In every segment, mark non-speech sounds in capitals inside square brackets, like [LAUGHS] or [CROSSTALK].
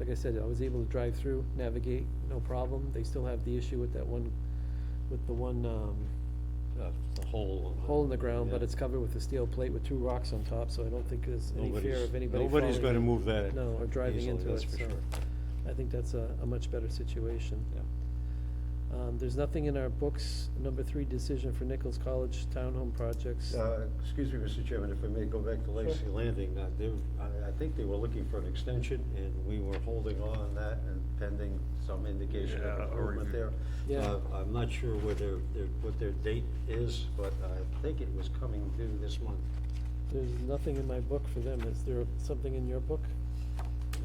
like I said, I was able to drive through, navigate, no problem. They still have the issue with that one, with the one, um, Uh, The hole. of hole in the ground, but yeah. it's covered with a steel plate with two rocks on top, so I don't think there's any fear Nobody's- of anybody falling. Nobody's gonna move that. No, or driving easily, into that's it, for so sure. I think that's a, a much better situation. Yeah. Um, there's nothing in our books, number three decision for Nichols College Townhome Projects. Uh, Excuse me, Mr. Chairman, if I may go back to Lacey Landing, uh, they- I I think they were looking for an extension, and we were holding on on that and pending some indication of Yeah, a improvement review. there. Yeah. Uh, I'm not sure where their, their- what their date is, but I think it was coming due this month. There's nothing in my book for them. Is there something in your book?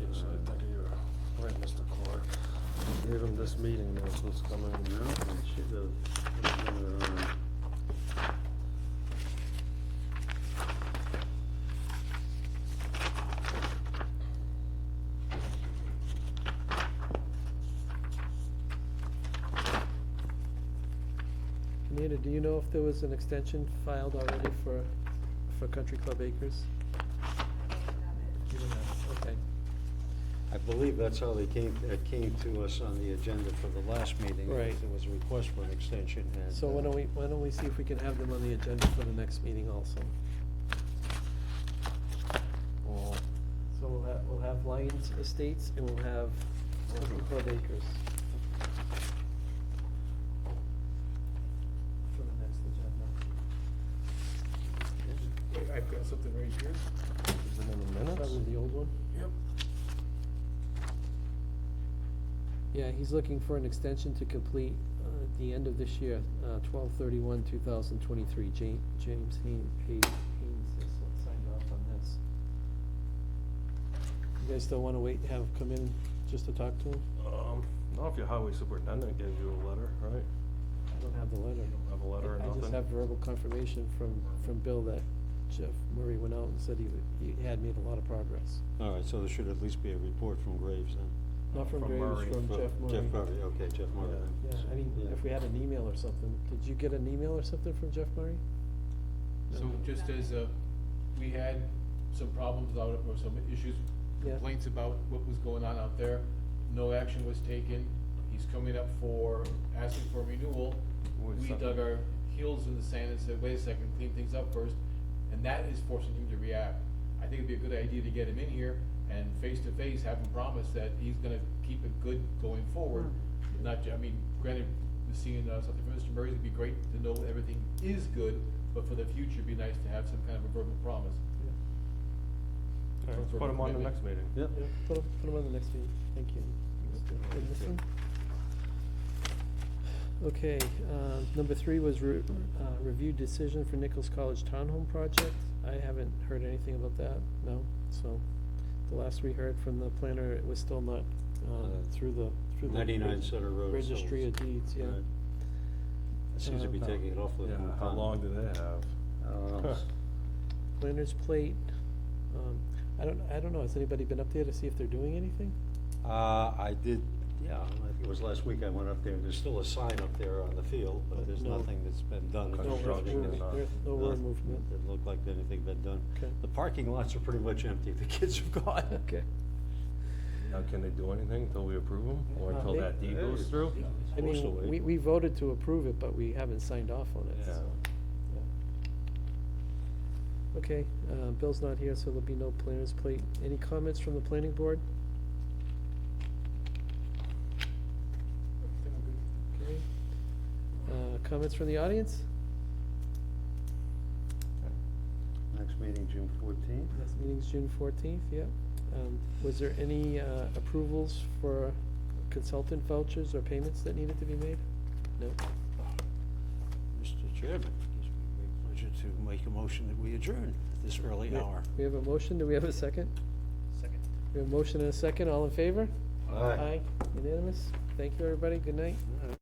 Yes, I think you're right, Mr. Clark. Gave him this meeting notice that's coming No, it should have- it should have, uh, Anita, do you know if there was an extension filed already for, for Country Club Acres? You don't know, okay. I believe that's how they came, it came to us on the agenda for the last meeting. Right. There was a request for an extension, and. So why don't we, why don't we see if we can have them on the agenda for the next meeting also? Well, So we'll have, we'll have Lions Estates and we'll have Country Club Acres. For the next agenda. Wait, I've got something right here. is it in the minutes? Probably the old one. Yep. Yeah, he's looking for an extension to complete, uh, at the end of this year, uh, twelve thirty-one, two thousand twenty-three. James, James Haynes, Haynes is what signed off on this. You guys still wanna wait, have, him come in just to talk to him? Um, not if your highway superintendent gave you a letter, right? I don't have the letter. don't have a letter or I- I just nothing? have verbal confirmation from, from Bill that Jeff Murray went out and said he, w- he had made a lot of progress. uh, All right, so there should at least be a report from Graves then. Not from Uh, From Graves, Murray, from From Jeff Murray. Jeff Murray, okay, Jeff Murray. Yeah, I mean, Yeah. if we had an email or something, did you get an email or something from Jeff Murray? So just as a, we had some problems out, or some issues, Yeah. complaints about what was going on out there. No action was taken. He's coming up for, asking for renewal. Wait a We second. dug our heels in the sand and said, wait a second, clean things up first, and that is forcing him to react. I think it'd be a good idea to get him in here and face to face, have him promise that he's gonna keep it good going forward. Not, ju- I mean, granted, seeing uh, something from Mr. Murray, it'd be great to know everything is good, but for the future, it'd be nice to have some kind of a verbal promise. All right, let's put him on the next meeting. Yep. Yeah, Put him, put him on the next meeting, thank you. And this one? Okay, uh, number three was re- uh, review decision for Nichols College Townhome Project. I haven't heard anything about that, no, so the last we heard from the planner, it was still not, um, Uh, through the, through the. Ninety-nine reg- Center Road. so Registry of Deeds, yeah. Right. It Seems to be Um, taking it off the. Yeah, how long do they have? I don't know. Planner's plate, um, I don't, I don't know, has anybody been up there to see if they're doing anything? [LAUGHS] Uh, I did, yeah, I think it was last week I went up there, there's still a sign up there on the field, but there's No. nothing that's been done. No earth Construction is movement, not- earth- no earth movement. It looked like anything been done. Okay. The parking lots are pretty much empty, the kids have gone. Okay. Now, can they do anything until we approve them, or Uh, until they- that deed goes through? I mean, we, we voted to approve it, but we haven't signed off on it, Yeah. so. yeah. Okay, uh, Bill's not here, so there'll be no planners plate. Any comments from the planning board? Okay. Uh, comments from the audience? Next meeting, June fourteenth. Next meeting's June fourteenth, yeah. Um, was there any, uh, approvals for consultant vouchers or payments that needed to be made? No? Mr. Chairman, it gives me great pleasure to make a motion that we adjourn at this early hour. We have a motion, do we have a second? Second. We have a motion and a second, all in favor? Unanimous? Thank you, everybody, good night. All right.